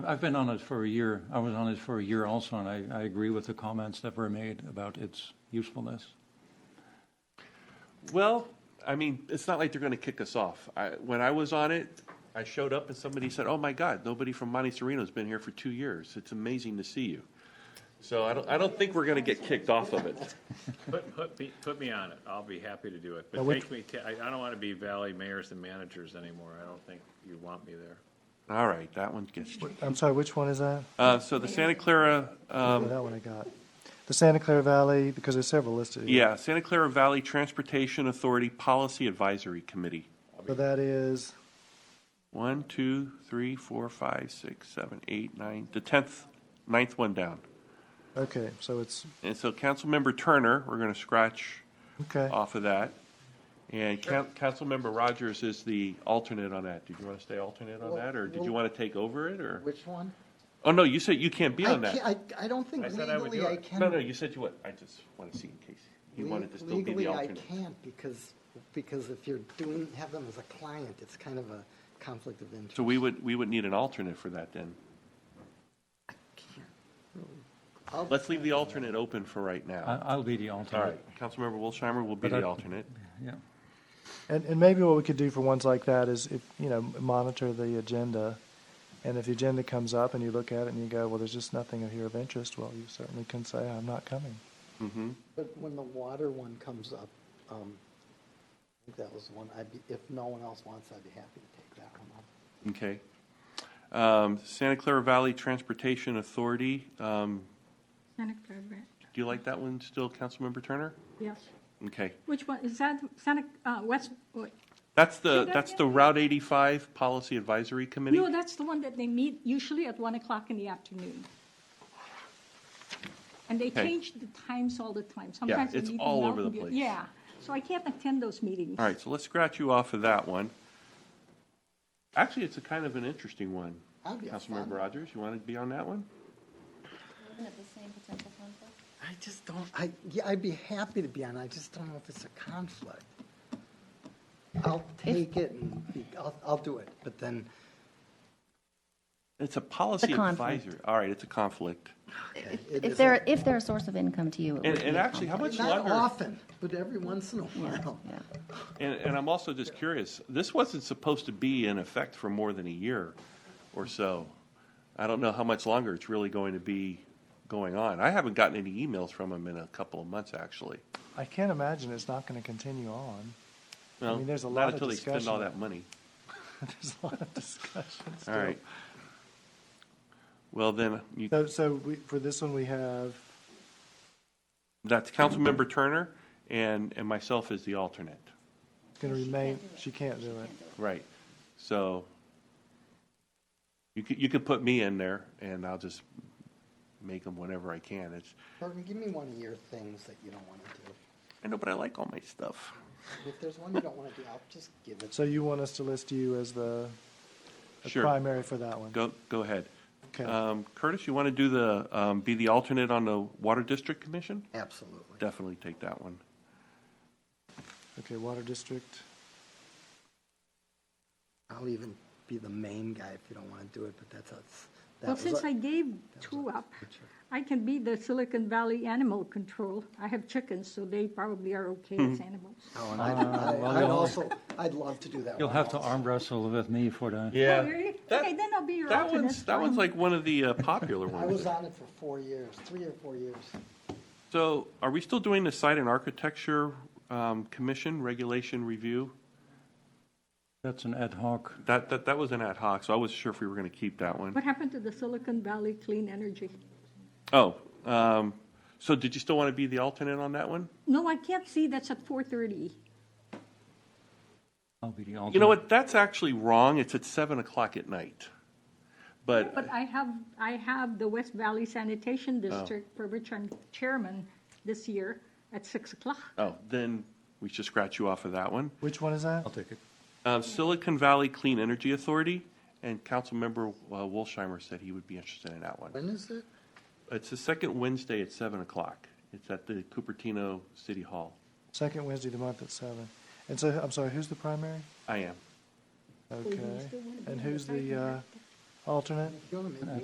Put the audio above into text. I've been on it for a year. I was on it for a year also, and I, I agree with the comments that were made about its usefulness. Well, I mean, it's not like they're going to kick us off. I, when I was on it, I showed up and somebody said, "Oh my God, nobody from Monte Sereno's been here for two years. It's amazing to see you." So I don't, I don't think we're going to get kicked off of it. Put, put me, put me on it. I'll be happy to do it, but But which- make me, ta- I, I don't want to be valley mayors and managers anymore. I don't think you want me there. All right, that one gets. I'm sorry, which one is that? Uh, so the Santa Clara, Oh, um, That one I got. The Santa Clara Valley, because there's several listed here. yeah, Santa Clara Valley Transportation Authority Policy Advisory Committee. So that is, One, two, three, four, five, six, seven, eight, nine. The tenth, ninth one down. okay, so it's, And so Councilmember Turner, we're going to scratch okay. off of that. And Coun- Councilmember Rogers is the alternate on that. Did you want to stay alternate on Well, that, or did you well- want to take over it, or? Which one? Oh, no, you said you can't be I on can't, that. I, I don't think I said I would legally do I it. can. No, no, you said you would. I just want to see in case you wanted to still be Legally, the alternate. I can't because, because if you're doing, have them as a client, it's kind of a conflict of interest. So we would, we would need an alternate for that then. I'll- Let's leave the alternate open for right I, now. I'll be the All alternate. right, Councilmember Wilsheimer will be Uh, But I- the alternate. Yeah. And, and maybe what we could do for ones like that is, if, you know, monitor the agenda. And if the agenda comes up and you look at it and you go, well, there's just nothing here of interest, well, you certainly can say, I'm not coming. But when the water one comes up, um, I think that was the one, I'd be, if no one else wants, I'd be happy to take that one on. Okay. Um, Santa Clara Valley Transportation Authority, um, Santa Clara Ranch. do you like that one still, Councilmember Turner? Yes. Okay. Which one, is that Santa, uh, West, wait. That's the, Say that that's again? the Route 85 Policy Advisory Committee? no, that's the one that they meet usually at one o'clock in the afternoon. And they Okay. change the times all the time. Sometimes they it's meet in all over the Mountain View. place. Yeah, so I can't attend those meetings. All right, so let's scratch you off of that one. Actually, it's a kind of an interesting one. That'd be a fun Councilmember one. Rogers, you want to be on that one? Isn't it the same potential conflict? I just don't, I, yeah, I'd be happy to be on, it. I just don't know if it's a conflict. I'll take it and, be- I'll, I'll do it, but then, It's a policy conflict. advisory. All right, it's a conflict. okay. it If is they're, a- if they're a source of income to you, it And, would be and a actually, how conflict. much Not longer? often, but every once in a while. Yeah, yeah. And, and I'm also just curious, this wasn't supposed to be in effect for more than a year or so. I don't know how much longer it's really going to be going on. I haven't gotten any emails from them in a couple of months, actually. I can't imagine it's not going to continue on. Well, mean, there's a not lot of until they spend all discussion. that money. There's a lot of discussion still. All right. Well, then, you- So, so we, for this one, we have, that's Councilmember Turner and, and myself as the alternate. going to remain, she can't do it. Right. So you could, you could put me in there and I'll just make them whenever I can. It's, Bergen, give me one of your things that you don't want to do. I know, but I like all my stuff. If there's one you don't want to do, I'll just give it. So you want us to list you as the the Sure, primary for that one? go, go ahead. Okay. Um, Curtis, you want to do the, um, be the alternate on the Water District Commission? Absolutely. Definitely take that one. Okay, Water District. I'll even be the main guy if you don't want to do it, but that's, that's. that Well, was since a- I gave two up, I can be the Silicon Valley Animal Control. I have chickens, so they probably are okay as Mm-hmm. animals. Oh, and I'd, I- I'd also, I'd love to do that. You'll one have to also. arm wrestle with me for that. Oh, really? That- Okay, then I'll be your Um, That alternate. one's, that one's Fine. like one of the uh, popular I was ones. on it for four years, three or four years. So are we still doing the Site and Architecture um, Commission Regulation Review? That's an ad hoc. That, that, that was an ad hoc, so I wasn't sure if we were going to keep that one. What happened to the Silicon Valley Clean Energy? Oh, um, so did you still want to be the alternate on that one? No, I can't see, that's at 4:30. I'll be the alternate. You know what, that's actually wrong, it's at seven o'clock at night. But, But I have, I have the West Valley Sanitation District, for which I'm chairman this year, at 6 o'clock. oh, then we should scratch you off of that one. Which one is that? I'll take it. Um, Silicon Valley Clean Energy Authority, and Councilmember uh, Wolsheimer said he would be interested in that one. When is it? It's the second Wednesday at seven o'clock, it's at the Cupertino City Hall. Second Wednesday of the month at seven. And so, I'm sorry, who's the primary? I am. Okay. still wanna be And on the who's site the uh, director? alternate? You're gonna make me